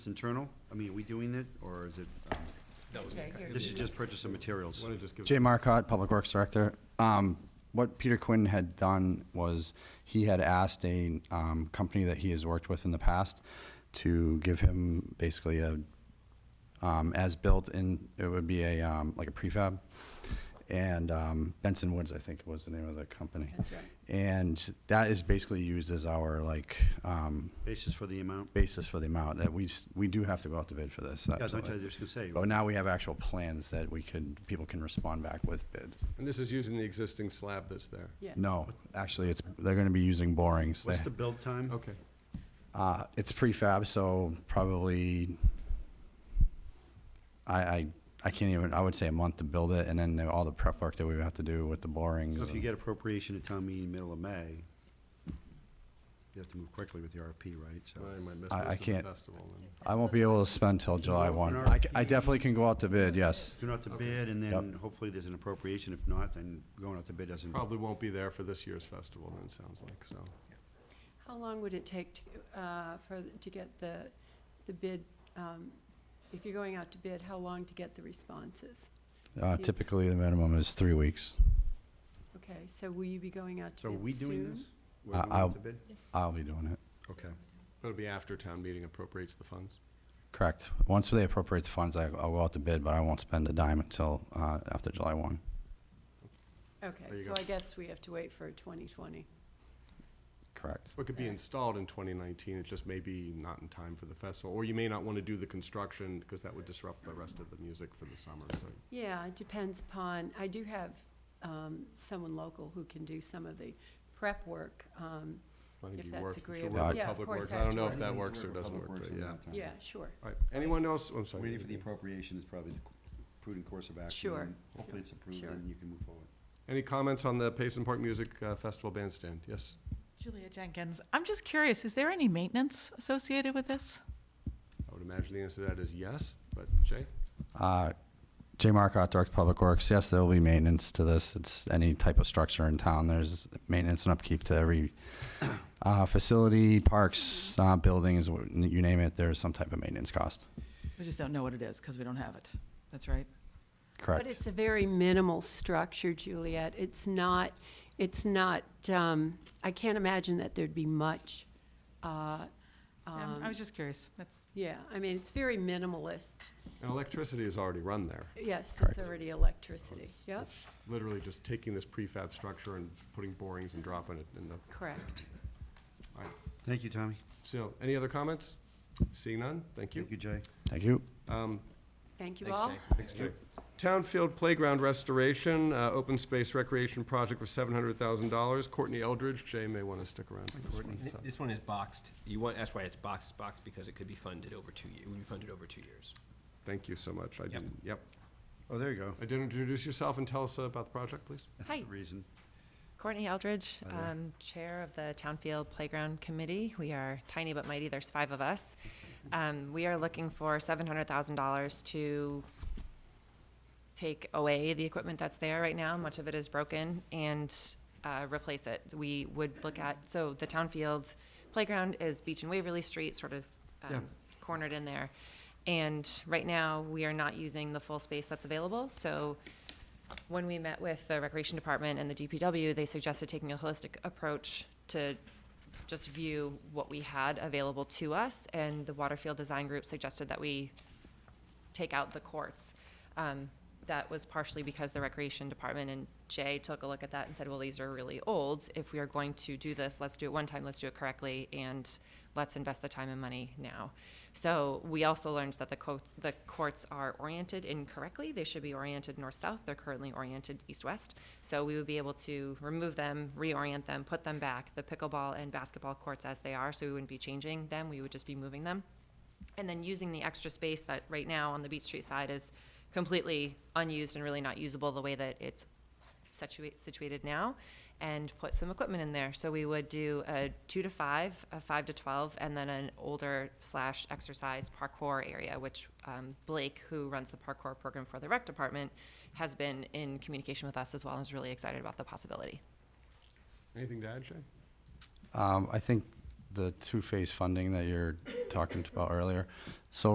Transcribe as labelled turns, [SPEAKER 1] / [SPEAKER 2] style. [SPEAKER 1] It's internal? I mean, are we doing it, or is it, um,
[SPEAKER 2] Okay, here.
[SPEAKER 1] this is just purchase of materials?
[SPEAKER 3] Jay Marcotte, Public Works Director. Um, What Peter Quinn had done was, he had asked a um, company that he has worked with in the past to give him basically a, um, as built in, it would be a, um, like a prefab. And um, Benson Woods, I think was the name of the company.
[SPEAKER 2] That's right.
[SPEAKER 3] And that is basically used as our like um,
[SPEAKER 1] Basis for the amount?
[SPEAKER 3] basis for the amount, that we, s- we do have to go out to bid for this.
[SPEAKER 1] Yeah, I was
[SPEAKER 3] absolutely.
[SPEAKER 1] just gonna say,
[SPEAKER 3] But now we have actual plans that we could, people can respond back with bids.
[SPEAKER 4] And this is using the existing slab that's there?
[SPEAKER 2] Yeah.
[SPEAKER 3] No, actually, it's, they're gonna be using borings.
[SPEAKER 1] what's
[SPEAKER 3] They-
[SPEAKER 1] the build time?
[SPEAKER 4] Okay.
[SPEAKER 3] Uh, it's prefab, so probably, I, I, I can't even, I would say a month to build it, and then the- all the prep work that we would have to do with the
[SPEAKER 1] So
[SPEAKER 3] borings.
[SPEAKER 1] if you get appropriation at town meeting middle of May, you have to move quickly with the RFP, right? So
[SPEAKER 4] I might miss
[SPEAKER 3] I- I
[SPEAKER 4] most of the
[SPEAKER 3] can't-
[SPEAKER 4] festival then.
[SPEAKER 3] I won't be able to spend till July
[SPEAKER 1] go for
[SPEAKER 3] one.
[SPEAKER 1] an
[SPEAKER 3] I, c- I definitely can go out to bid, yes.
[SPEAKER 1] Going out to bid, and then
[SPEAKER 3] Yep.
[SPEAKER 1] hopefully there's an appropriation. If not, then going out to bid doesn't.
[SPEAKER 4] Probably won't be there for this year's festival then, it sounds like, so.
[SPEAKER 2] How long would it take to, uh, for, to get the, the bid, um, if you're going out to bid, how long to get the responses?
[SPEAKER 3] Uh, typically, the minimum is three weeks.
[SPEAKER 2] Okay, so will you be going out to
[SPEAKER 1] So
[SPEAKER 2] bid
[SPEAKER 1] are
[SPEAKER 2] soon?
[SPEAKER 1] we doing this? We're
[SPEAKER 3] I-
[SPEAKER 1] going out
[SPEAKER 3] I'll-
[SPEAKER 1] to bid?
[SPEAKER 3] I'll be doing it.
[SPEAKER 1] Okay.
[SPEAKER 4] It'll be after town meeting appropriates the funds.
[SPEAKER 3] Correct. Once they appropriate the funds, I, I'll go out to bid, but I won't spend a dime until, uh, after July one.
[SPEAKER 4] There
[SPEAKER 2] Okay,
[SPEAKER 4] you
[SPEAKER 2] so
[SPEAKER 4] go.
[SPEAKER 2] I guess we have to wait for 2020.
[SPEAKER 3] Correct.
[SPEAKER 4] What could be
[SPEAKER 2] Yeah.
[SPEAKER 4] installed in 2019, it just may be not in time for the festival, or you may not want to do the construction because that would disrupt the rest of the music for the summer, so.
[SPEAKER 2] Yeah, it depends upon, I do have um, someone local who can do some of the prep work. um,
[SPEAKER 4] I think
[SPEAKER 2] If
[SPEAKER 4] you
[SPEAKER 2] that's
[SPEAKER 4] work- you should
[SPEAKER 2] agreeable.
[SPEAKER 4] work with
[SPEAKER 2] Yeah, of
[SPEAKER 4] Public
[SPEAKER 2] course,
[SPEAKER 4] Works.
[SPEAKER 2] I
[SPEAKER 4] I
[SPEAKER 2] have
[SPEAKER 4] don't
[SPEAKER 2] to
[SPEAKER 4] know
[SPEAKER 2] work
[SPEAKER 4] if that works or doesn't work, but yeah.
[SPEAKER 1] Uh-huh.
[SPEAKER 2] Yeah, sure.
[SPEAKER 4] All right, anyone else? I'm sorry.
[SPEAKER 1] Waiting for the appropriation is probably the prudent course of action.
[SPEAKER 2] Sure.
[SPEAKER 1] and Hopefully it's approved,
[SPEAKER 2] Sure.
[SPEAKER 1] and you can move forward.
[SPEAKER 4] Any comments on the Payson Park Music uh, Festival Bandstand? Yes?
[SPEAKER 5] Julia Jenkins, I'm just curious, is there any maintenance associated with this?
[SPEAKER 4] I would imagine the answer to that is yes, but Jay?
[SPEAKER 3] Uh, Jay Marcotte, Director of Public Works. Yes, there will be maintenance to this. It's any type of structure in town. There's maintenance and upkeep to every uh, facility, parks, uh, buildings, wh- you name it, there's some type of maintenance cost.
[SPEAKER 5] We just don't know what it is because we don't have it. That's right.
[SPEAKER 3] Correct.
[SPEAKER 2] But it's a very minimal structure, Juliet. It's not, it's not, um, I can't imagine that there'd be much. uh,
[SPEAKER 5] Yeah, I
[SPEAKER 2] um,
[SPEAKER 5] was just curious. That's,
[SPEAKER 2] Yeah, I mean, it's very minimalist.
[SPEAKER 4] And electricity is already run there.
[SPEAKER 2] Yes, there's
[SPEAKER 3] Correct.
[SPEAKER 2] already electricity. Yep,
[SPEAKER 4] Literally just taking this prefab structure and putting borings and dropping it in the,
[SPEAKER 2] correct.
[SPEAKER 4] all right.
[SPEAKER 1] Thank you, Tommy.
[SPEAKER 4] So, any other comments? Seeing none, thank you.
[SPEAKER 1] Thank you, Jay.
[SPEAKER 3] Thank you.
[SPEAKER 4] Um,
[SPEAKER 2] Thank you all.
[SPEAKER 4] Thanks, Jay. Town Field Playground Restoration, uh, Open Space Recreation Project for seven hundred thousand dollars. Courtney Eldridge, Jay may want to stick around for this one.
[SPEAKER 6] Th-
[SPEAKER 4] so.
[SPEAKER 6] This one is boxed. You want, that's why it's boxed, it's boxed because it could be funded over two, ye- it would be funded over two years.
[SPEAKER 4] Thank you so much. I didn't, yep.
[SPEAKER 1] Oh, there you go.
[SPEAKER 4] I didn't introduce yourself and tell us about the project, please.
[SPEAKER 1] That's
[SPEAKER 7] Hi.
[SPEAKER 1] the reason.
[SPEAKER 7] Courtney Eldridge,
[SPEAKER 1] Hi there.
[SPEAKER 7] um, Chair of the Townfield Playground Committee. We are tiny but mighty, there's five of us. Um, We are looking for $700,000 to take away the equipment that's there right now, much of it is broken, and uh, replace it. We would look at, so the Townfield Playground is Beach and Waverly Street, sort of um,
[SPEAKER 1] Yeah.
[SPEAKER 7] cornered in there. And right now, we are not using the full space that's available, so when we met with the Recreation Department and the DPW, they suggested taking a holistic approach to just view what we had available to us, and the Waterfield Design Group suggested that we take out the courts. Um, That was partially because the Recreation Department and Jay took a look at that and said, well, these are really old. If we are going to do this, let's do it one time, let's do it correctly, and let's invest the time and money now. So we also learned that the co- the courts are oriented incorrectly. They should be oriented north-south. They're currently oriented east-west. So we would be able to remove them, reorient them, put them back, the pickleball and basketball courts as they are, so we wouldn't be changing them. We would just be moving them and then using the extra space that right now on the Beach Street side is completely unused and really not usable the way that it's situate, situated now, and put some equipment in there. So we would do a two to five, a five to twelve, and then an older slash exercise parkour area, which um, Blake, who runs the parkour program for the rec department, has been in communication with us as well and is really excited about the possibility.
[SPEAKER 4] Anything to add, Jay?
[SPEAKER 3] Um, I think the two-phase funding that you're talking about earlier,